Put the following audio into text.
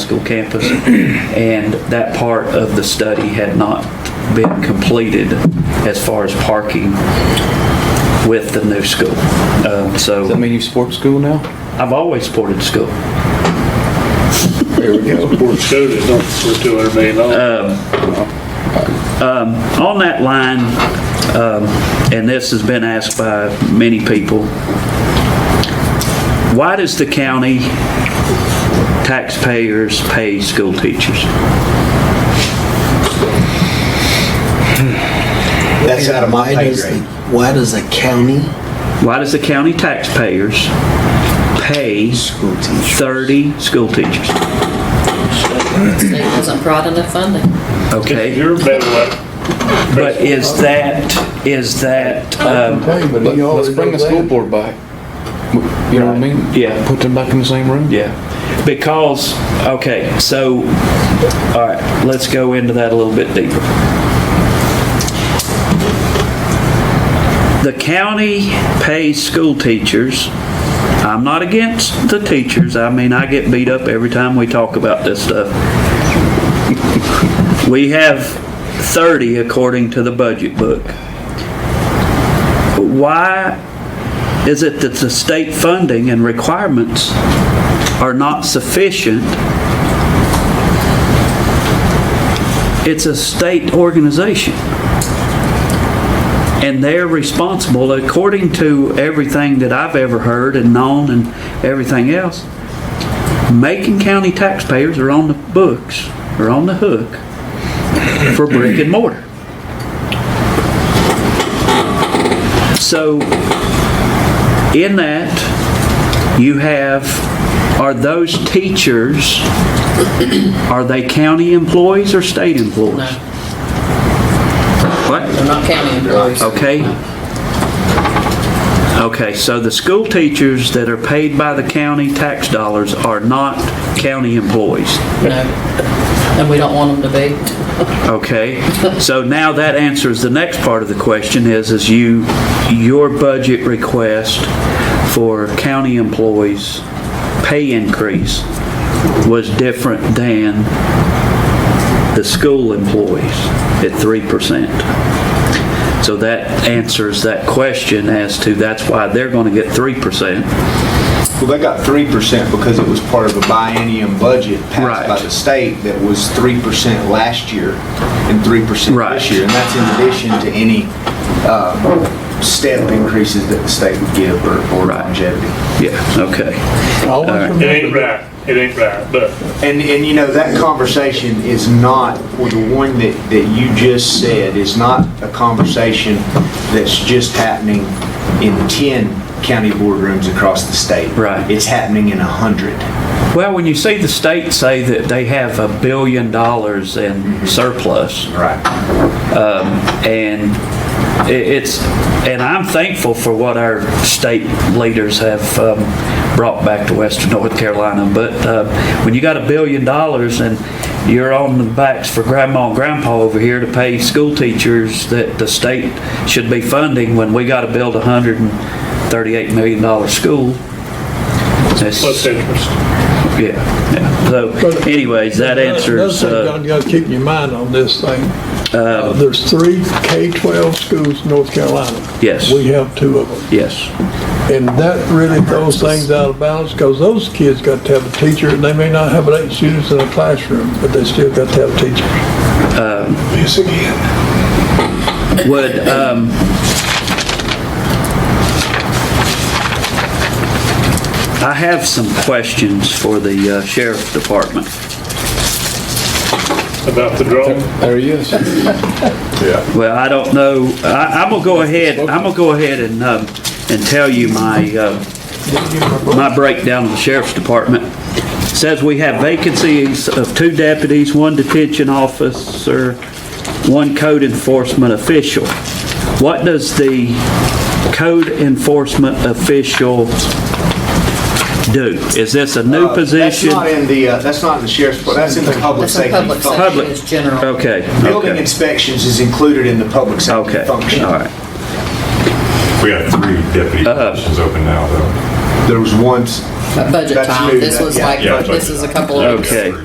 school campus, and that part of the study had not been completed as far as parking with the new school. Um, Does that So mean you support school now? I've always supported the school. There we go. We're screwed, it's not for two hundred million dollars. On that line, um, and this has been asked by many people, why does the county taxpayers pay school teachers? That's out of my pay grade. Why does a county Why does the county taxpayers pay school teacher? 30 school teachers? State wasn't brought enough funding. Okay, You're better at. but is that, is that, um, Let- Let's bring the school board back. You know what I mean? Yeah. Put them back in the same room? yeah, because, okay, so, all right, let's go into that a little bit deeper. The county pays school teachers. I'm not against the teachers. I mean, I get beat up every time we talk about this stuff. We have 30 according to the budget book. But Why is it that the state funding and requirements are not sufficient? It's a state organization. And they're responsible, according to everything that I've ever heard and known and everything else. Macon County taxpayers are on the books, are on the hook for brick and mortar. So in that, you have, are those teachers, are they county employees or state No, employees? What? they're not county employees. Okay. Okay, so the school teachers that are paid by the county tax dollars are not county employees. No. And we don't want them to be. Okay, so now that answers the next part of the question is, is you, your budget request for county employees' pay increase was different than the school employees at 3%. So that answers that question as to that's why they're going to get 3%. Well, they got three percent because it was part of a biennium budget Right. passed by the state that was three percent last year and three percent Right. this year. And that's in addition to any um, step increases that the state would give or or Right. longevity. Yeah, okay. It ain't right, it ain't right, but And, and you know, that conversation is not, or the one that, that you just said, is not a conversation that's just happening in 10 county boardrooms across the state. Right. It's happening in 100. Well, when you see the state say that they have a billion dollars in surplus, Right. and i- it's, and I'm thankful for what our state leaders have um, brought back to Western North Carolina, but uh, when you got a billion dollars and you're on the backs for grandma and grandpa over here to pay school teachers that the state should be funding when we got to build a hundred and thirty-eight million dollar school. that's- plus interest. yeah, yeah. So anyways, that answers, Another uh, thing, Don, you gotta keep in your mind on this thing. Uh, There's three K-12 schools in North Carolina. Yes. We have two of them. yes, And that really throws things out of balance because those kids got to have a teacher. and They may not have eight students in a classroom, but they still got to have teachers. Um, Yes, again. would, um, I have some questions for the uh, sheriff's department. About the drone, There he is. Well, I don't know, I, I'm gonna go ahead, I'm gonna go ahead and, um, and tell you my, uh, my breakdown of the sheriff's department. Says we have vacancies of two deputies, one detention officer, one code enforcement official. What does the code enforcement official do? Is this a new Uh, That's position? not in the, uh, that's not in the sheriff's, department. that's in the public That's a safety public function. safety, Public. it's general. Okay, Building okay, inspections is included in the public safety okay, function. all right. We have three deputy positions open now, though. There was once, But Budget That's time, new, this that- was yeah, like, yeah, this is a couple of weeks. Okay.